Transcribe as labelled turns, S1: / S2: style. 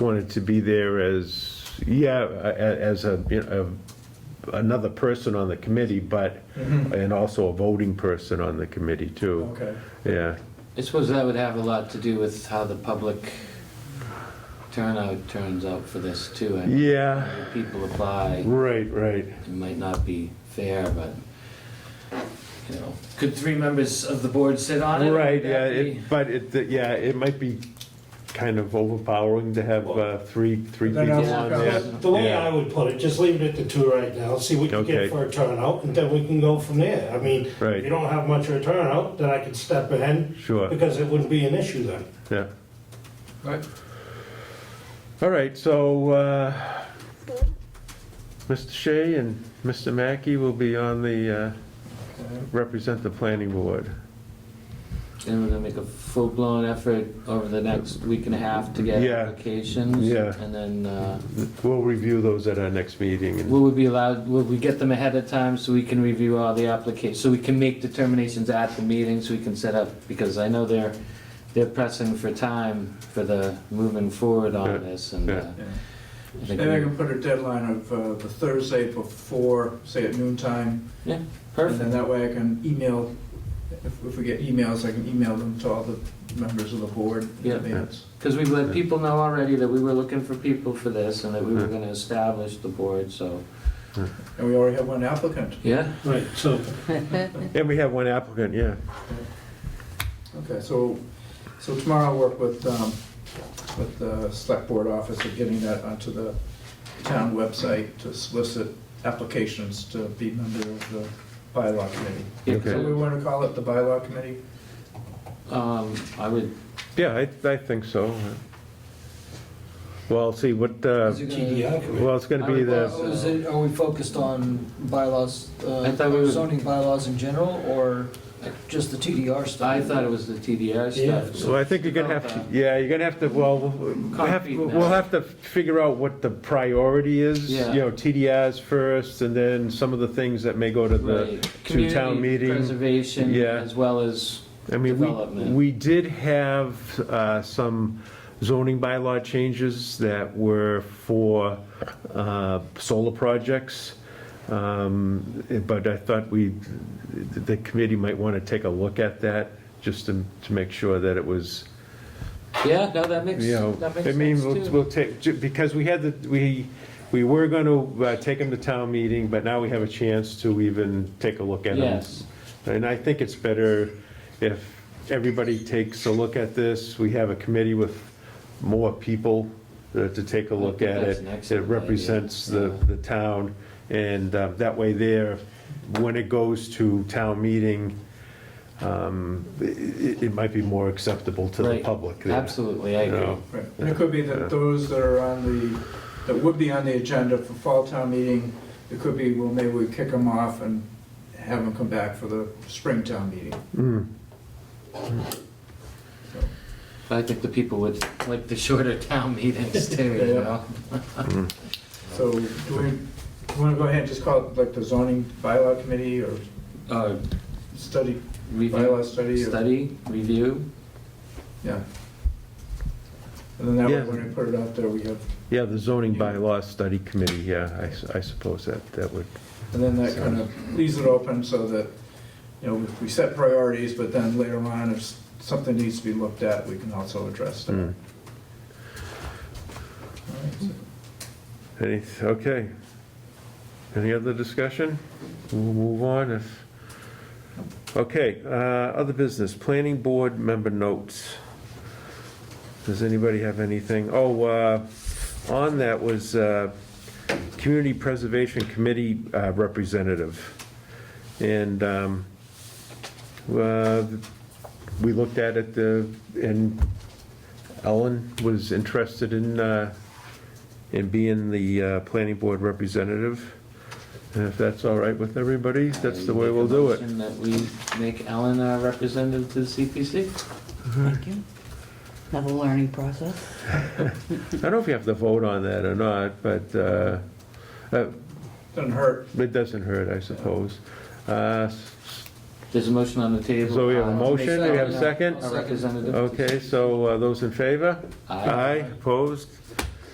S1: wanted to be there as, yeah, a- a- as a, you know, a- another person on the committee, but,
S2: Mm-hmm.
S1: and also a voting person on the committee too.
S2: Okay.
S1: Yeah,
S3: I suppose that would have a lot to do with how the public turnout turns out for this too. And
S1: yeah,
S3: if people apply,
S1: right, right.
S3: it might not be fair, but, you know, could three members of the board sit on it? Would
S1: Right,
S3: that
S1: yeah,
S3: be-
S1: it- but it, yeah, it might be kind of overpowering to have uh, three, three
S2: Then
S1: people
S2: I'll
S1: on
S2: work
S1: there.
S2: out.
S4: The way
S1: Yeah.
S4: I would put it, just leave it at the two right now, see what you
S1: Okay.
S4: get for a turnout, and then we can go from there. I mean,
S1: Right.
S4: if you don't have much of a turnout, then I could step in,
S1: Sure,
S4: because it wouldn't be an issue then.
S1: yeah.
S2: Right.
S1: All right, so, uh, Mr. Shea and Mr. Mackey will be on the, uh, represent the planning board.
S3: And we're gonna make a full-blown effort over the next week and a half to get
S1: Yeah.
S3: applications.
S1: Yeah.
S3: And then, uh,
S1: We'll review those at our next meeting. and-
S3: will we be allowed, will we get them ahead of time so we can review all the applications? So we can make determinations at the meeting, so we can set up, because I know they're, they're pressing for time for the moving forward
S1: Yeah.
S3: on this and.
S1: Yeah.
S3: uh,
S2: Yeah.
S3: I think
S2: And I
S3: we-
S2: can put a deadline of uh, the Thursday before, say at noon time. And
S3: Perfect,
S2: then that way I can email, if if we get emails, I can email them to all the members of the board. in
S3: Yeah.
S2: advance.
S3: because we've let people know already that we were looking for people for this and that we were
S1: Mm-hmm.
S3: gonna establish the board, so.
S2: And we already have one applicant.
S3: Yeah,
S4: Right, so.
S1: And we have one applicant, yeah.
S2: Okay, so, so tomorrow I'll work with, um, with the select board office of getting that onto the town website to solicit applications to be member of the bylaw committee.
S3: yeah,
S1: Okay.
S2: So we
S3: so,
S2: want to call it the bylaw committee?
S3: um, I would,
S1: Yeah, I, I think so. Well, see, what, uh,
S4: TDI committee.
S1: well, it's gonna be the,
S5: Well, is it- Are we focused on bylaws, uh,
S3: I thought we were-
S5: zoning bylaws in general, or just the TDR stuff?
S3: I thought it was the TDR
S4: Yeah.
S3: stuff.
S1: so I think you're gonna have to, yeah, you're gonna have to, well, we'll have,
S3: Concrete now.
S1: we'll have to figure out what the priority is.
S3: Yeah.
S1: You know, TDIs first, and then some of the things that may go to the,
S3: Right.
S1: to town
S3: Community
S1: meeting.
S3: Preservation
S1: Yeah.
S3: as well as,
S1: I mean, we,
S3: Development.
S1: we did have uh, some zoning bylaw changes that were for uh, solar projects. Um, But I thought we, the committee might want to take a look at that, just to, to make sure that it was,
S3: yeah, no, that makes,
S1: you know.
S3: that makes
S1: I mean,
S3: sense
S1: we'll,
S3: too.
S1: we'll take, ju- because we had the, we, we were going to take them to town meeting, but now we have a chance to even take a look at them.
S3: Yes,
S1: And I think it's better if everybody takes a look at this. We have a committee with more people uh, to take a look
S3: think
S1: at
S3: that's an
S1: it. It
S3: excellent
S1: represents the,
S3: idea.
S1: the town, and uh, that way there, when it goes to town meeting, um, i- i- it might be more acceptable to the
S3: Right.
S1: public. there,
S3: absolutely, I
S1: you
S3: agree.
S1: know?
S2: Right, and it could be that those that are on the, that would be on the agenda for fall town meeting, it could be, well, maybe we kick them off and have them come back for the spring town meeting.
S1: Mm.
S3: But I think the people would like the shorter town meetings too, you
S2: Yeah.
S3: know?
S2: So do we want to go ahead and just call it like the zoning bylaw committee or
S3: Uh,
S2: study, bylaw
S3: Review,
S2: study? or-
S3: study, review,
S2: Yeah. And then that way,
S1: Yeah.
S2: when we put it out there, we have,
S1: Yeah, the zoning bylaw study committee, yeah, I s- I suppose that, that would,
S2: and then that kind of leaves it open so that, you know, we set priorities, but then later on, if something needs to be looked at, we can also address that.
S1: mm.
S2: All right, so-
S1: Any, okay. Any other discussion? We'll move on if, okay, uh, other business, planning board member notes. Does anybody have anything? Oh, uh, on that was uh, Community Preservation Committee uh, representative. And um, uh, we looked at it, uh, and Ellen was interested in uh, in being the uh, planning board representative. And if that's all right with everybody, that's the way we'll do it.
S3: Motion That we make Ellen our representative to the CPC?
S6: Thank you. Another learning process.
S1: I don't know if you have to vote on that or not, but uh, uh,
S2: Doesn't hurt.
S1: it doesn't hurt, I suppose. Uh, s-
S3: There's a motion on the table.
S1: So we have a
S3: uh, to make
S1: motion, do we have a
S3: Ellen
S1: second?
S3: Our representative.
S1: Okay, so uh, those in favor?
S3: Aye.
S1: Opposed?